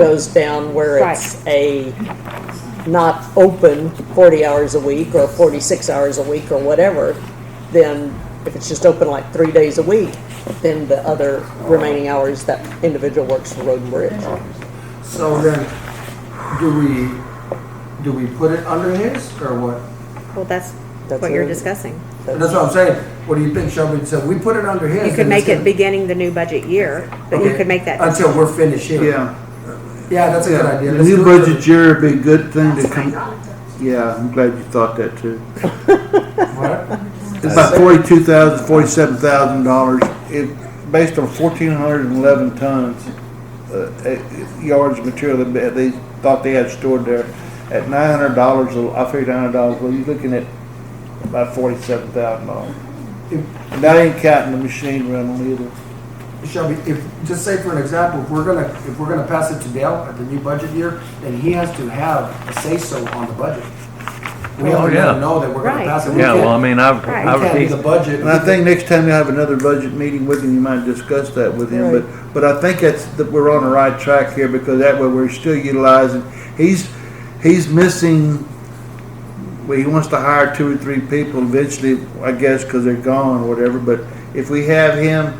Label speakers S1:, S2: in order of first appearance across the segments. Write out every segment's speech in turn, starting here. S1: goes down where it's a not open forty hours a week or forty-six hours a week or whatever, then if it's just open like three days a week, then the other remaining hours that individual works for Road and Bridge.
S2: So then, do we, do we put it under his or what?
S3: Well, that's
S1: That's
S3: what you're
S1: it.
S3: discussing.
S2: And that's what I'm saying. What do you think, Shelby? So we put it under his.
S3: You could
S2: then it's
S3: make it
S2: gonna-
S3: beginning the new budget year, but you
S2: Okay,
S3: could make
S1: Uh,
S3: that,
S2: Until we're finished here.
S4: Yeah,
S2: Yeah, that's a good idea.
S4: the
S2: Let's
S4: new
S2: do it.
S4: budget year would be a good thing to come. Yeah, I'm glad you thought that too.
S2: What?
S4: It's about forty-two thousand, forty-seven thousand dollars. It, based on fourteen hundred and eleven tons, uh, uh, yards of material that they thought they had stored there. At nine hundred dollars, I figured nine hundred dollars, well, you're looking at about forty-seven thousand dollars. And that ain't counting the machine rental either.
S2: Shelby, if, just say for an example, if we're gonna, if we're gonna pass it to Dale at the new budget year, then he has to have a say-so on the budget. We
S5: Oh,
S2: have to
S5: yeah.
S2: let him know that we're gonna
S3: Right.
S2: pass it. We
S5: Yeah, well, I
S2: can't-
S5: mean, I've,
S3: Right.
S2: We can't do
S5: I've,
S2: the budget.
S4: And I think next time you have another budget meeting with him, you might discuss that with him, but, but I think that's, that we're on the right track here, because that way we're still utilizing, he's, he's missing, well, he wants to hire two or three people eventually, I guess, because they're gone or whatever, but if we have him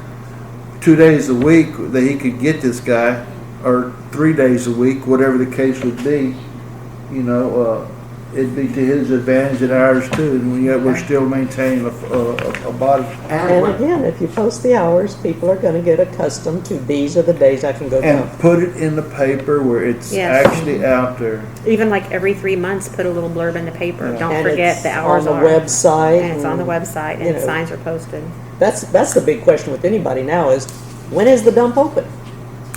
S4: two days a week, that he could get this guy, or three days a week, whatever the case would be, you know, uh, it'd be to his advantage and ours too, and yet we're still maintaining a, a, a body.
S2: And
S1: And
S2: we're-
S1: again, if you post the hours, people are gonna get accustomed to these are the days I can go
S4: And
S1: down.
S4: put it in the paper where it's
S3: Yes.
S4: actually out there.
S3: even like every three months, put a little blurb in the paper.
S4: Yeah.
S3: Don't
S1: And
S3: forget
S1: it's
S3: the hours
S1: On
S3: are.
S1: the website.
S3: And it's on the
S1: and-
S3: website
S1: you
S3: and
S1: know.
S3: signs are posted.
S1: That's, that's the big question with anybody now is, when is the dump open?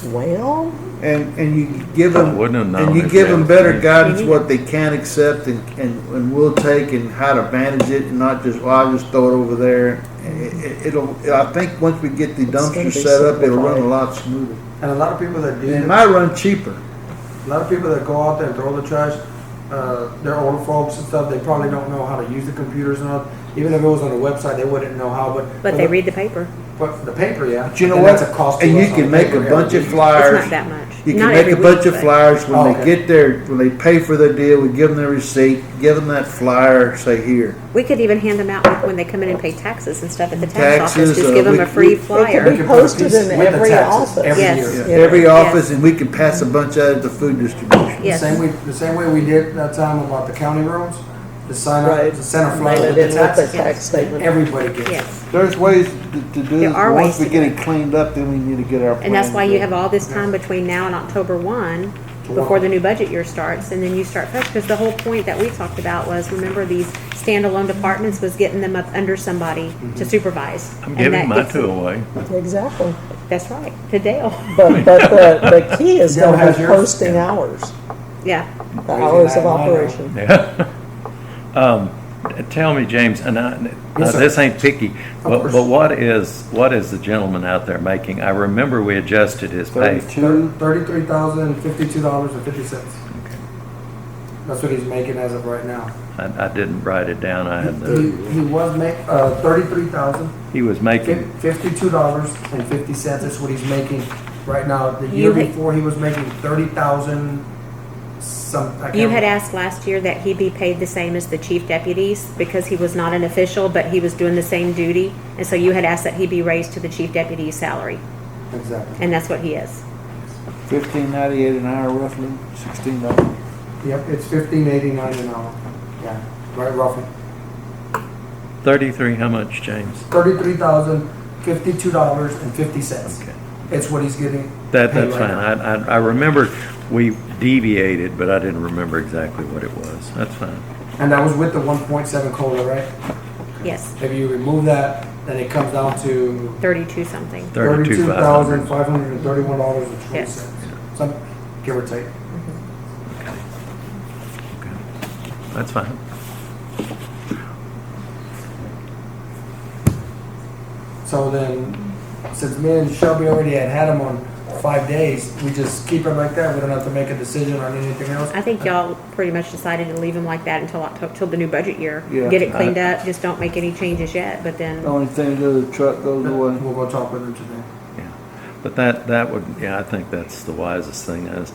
S1: Well,
S4: And, and you give them,
S5: wouldn't have known
S4: and you
S5: if
S4: give
S5: they
S4: them
S5: had
S4: better
S5: three.
S4: guidance, what they can accept and, and, and will take and how to manage it and not just, well, I'll just throw it over there. It, it'll, I think once we get the
S1: gonna
S4: dumpster
S1: be
S4: set up, it'll run a
S1: simplified.
S4: lot smoother.
S2: and a lot of people that do.
S4: And it
S2: that-
S4: might run cheaper.
S2: A lot of people that go out there and throw the trash, uh, they're older folks and stuff, they probably don't know how to use the computers and all. Even if it was on the website, they wouldn't know how, but.
S1: Uh-huh.
S3: But they read the paper.
S2: But the paper, yeah.
S4: But you know
S2: And
S4: what?
S2: That's a cost to
S4: And you
S2: us on
S4: can make a
S2: paper
S4: bunch
S2: every
S4: of
S2: week.
S4: flyers.
S3: It's not that much.
S4: You can
S3: Not
S4: make
S3: every
S4: a bunch
S3: week,
S4: of
S3: but-
S4: flyers
S2: Oh,
S4: when they
S2: okay.
S4: get there, when they pay for their deal, we give them their receipt, give them that flyer, say here.
S3: We could even hand them out with- when they come in and pay taxes and stuff at the tax office.
S4: Taxes,
S3: Just
S4: uh,
S3: give them
S4: we-
S3: a free
S4: we-
S1: it
S3: flyer.
S1: could
S2: We
S1: be
S2: can put a
S1: posted
S2: piece
S1: in
S2: with the
S1: every
S2: taxes
S1: office.
S2: every
S3: Yes.
S2: year.
S1: Yeah.
S4: Every
S3: Yes.
S4: office, and we can pass a bunch out at the food distribution.
S2: The
S3: Yes.
S2: same way, the same way we did that time about the county roads, the sign up,
S1: right.
S2: the center
S1: Mail
S2: flyer
S1: it
S2: with the
S1: in with the
S2: Uh, taxes.
S1: tax statement.
S2: Everybody gets it.
S3: Yes.
S4: There's ways to to do
S3: There
S4: this,
S3: are
S4: once
S3: ways
S4: we
S3: to
S4: get
S3: do
S4: it cleaned up, then we need to get our.
S3: And that's
S4: plan
S3: why you
S4: together.
S3: have all this time between now and October one, before the new budget year starts, and then you start fresh, because the whole point that we talked about was, remember, these standalone departments was getting them up under somebody to supervise.
S5: Mm-hmm. I'm
S3: And that
S5: giving my
S3: gets
S5: two
S3: them-
S5: away.
S1: Exactly.
S3: That's right, to Dale,
S1: But, but the, the key is
S2: Dale
S1: gonna
S2: has
S1: be
S2: yours?
S1: posting hours,
S3: yeah.
S1: the hours of
S2: that line up.
S1: operation.
S5: Yeah. Um, tell me, James, and I, now,
S2: Yes, sir.
S5: this ain't picky, but,
S2: course.
S5: but what is, what is the gentleman out there making? I remember we adjusted his pay.
S4: Thirty-two,
S2: Thirty-three thousand, fifty-two dollars and fifty cents. That's what he's making as of right now.
S5: I, I didn't write it down. I had
S2: He,
S5: the,
S2: he was make, uh, thirty-three thousand,
S5: he was making,
S2: Fifty-two dollars and fifty cents is what he's making right now. The year
S3: You had-
S2: before, he was making thirty thousand some. I can't
S3: You had
S2: remember.
S3: asked last year that he be paid the same as the chief deputies, because he was not an official, but he was doing the same duty, and so you had asked that he be raised to the chief deputy's salary,
S2: Exactly.
S3: and that's what he is.
S4: fifteen ninety-eight an hour roughly, sixteen dollars.
S2: Yep, it's fifteen eighty-nine an hour. Yeah, right roughly.
S5: thirty-three, how much, James?
S2: Thirty-three thousand, fifty-two dollars and fifty cents.
S5: Okay.
S2: It's what he's getting.
S5: That,
S2: paid
S5: that's
S2: right
S5: fine.
S2: now.
S5: I, I, I remember we deviated, but I didn't remember exactly what it was. That's fine.
S2: And that was with the one point seven COLA, right?
S3: Yes,
S2: If you remove that, then it comes down to
S3: thirty-two something.
S2: thirty-two
S5: Thirty-two, five
S2: thousand,
S5: hundred.
S2: five hundred and thirty-one dollars and twenty
S3: Yes.
S2: cents. Some, give or take.
S5: That's fine.
S2: So then, since me and Shelby already had had them on five days, we just keep them like that, we don't have to make a decision on anything else?
S3: I think y'all pretty much decided to leave them like that until October, till the new budget year.
S4: Yeah. Oh,
S3: Get it cleaned up, just don't make any changes yet, but then,
S4: Only thing, to do, the truck goes
S2: We'll
S4: away.
S2: go talk with them today.
S5: Yeah. But that, that would, yeah, I think that's the wisest thing is,